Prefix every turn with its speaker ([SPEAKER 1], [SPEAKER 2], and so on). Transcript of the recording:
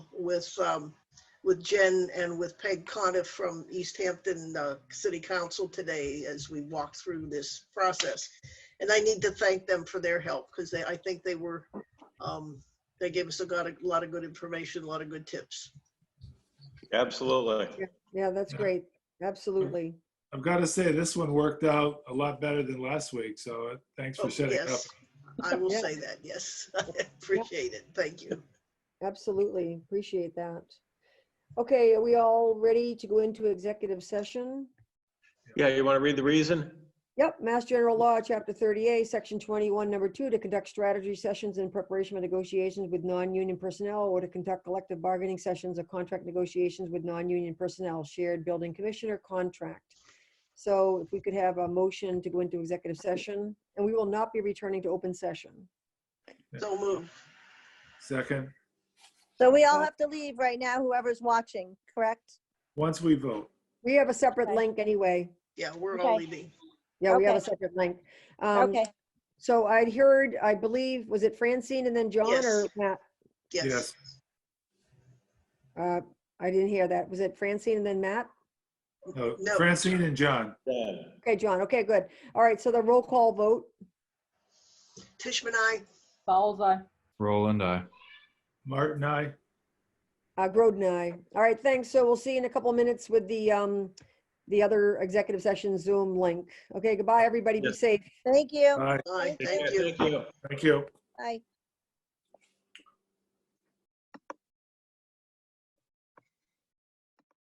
[SPEAKER 1] with, um, with Jen and with Peg Coniff from East Hampton uh, City Council today as we walked through this process. And I need to thank them for their help because they, I think they were, um, they gave us a lot, of- lot of good information, a lot of good tips.
[SPEAKER 2] Absolutely.
[SPEAKER 3] Yeah, that's great. Absolutely.
[SPEAKER 4] I've got to say, this one worked out a lot better than last week, so uh, thanks
[SPEAKER 1] Oh,
[SPEAKER 4] for setting up.
[SPEAKER 1] yes. I will
[SPEAKER 3] Yeah.
[SPEAKER 1] say that, yes. I appreciate it. Thank you.
[SPEAKER 3] Absolutely. Appreciate that. Okay, are we all ready to go into executive session?
[SPEAKER 2] Yeah, you want to read the reason?
[SPEAKER 3] Yep, Mass General Law, Chapter 38, Section 21, Number 2, to conduct strategy sessions in preparation for negotiations with non-union personnel or to conduct collective bargaining sessions or contract negotiations with non-union personnel, shared building commissioner contract. So if we could have a motion to go into executive session, and we will not be returning to open session.
[SPEAKER 1] So moved.
[SPEAKER 4] Second,
[SPEAKER 5] So we all
[SPEAKER 3] Uh,
[SPEAKER 5] have to leave right now, whoever's watching, correct?
[SPEAKER 4] once we vote.
[SPEAKER 3] We have a separate
[SPEAKER 5] Okay.
[SPEAKER 3] link anyway.
[SPEAKER 1] Yeah, we're all
[SPEAKER 5] Okay.
[SPEAKER 1] leaving.
[SPEAKER 3] Yeah, we have a
[SPEAKER 5] Okay.
[SPEAKER 3] separate link. Um,
[SPEAKER 5] Okay,
[SPEAKER 3] So I'd heard, I believe, was it Francine and then John
[SPEAKER 1] Yes.
[SPEAKER 3] or Matt?
[SPEAKER 1] Yes.
[SPEAKER 4] Yes.
[SPEAKER 3] Uh, I didn't hear that. Was it Francine and then Matt?
[SPEAKER 4] No,
[SPEAKER 1] No.
[SPEAKER 4] Uh, Francine and John,
[SPEAKER 2] Dan?
[SPEAKER 3] Okay, John. Okay, good. All right, so the roll call vote.
[SPEAKER 1] Tishman, I,
[SPEAKER 6] Fowles eye.
[SPEAKER 7] Roland, I.
[SPEAKER 4] Martin, I.
[SPEAKER 3] Uh, Groden, aye. All right, thanks. So we'll see you in a couple of minutes with the, um, the other executive session Zoom link. Okay, goodbye, everybody. Be
[SPEAKER 2] Yes.
[SPEAKER 3] safe.
[SPEAKER 5] thank you.
[SPEAKER 4] Aye.
[SPEAKER 1] aye,
[SPEAKER 5] Thank
[SPEAKER 1] thank you.
[SPEAKER 2] Thank you.
[SPEAKER 4] Thank you.
[SPEAKER 5] Bye.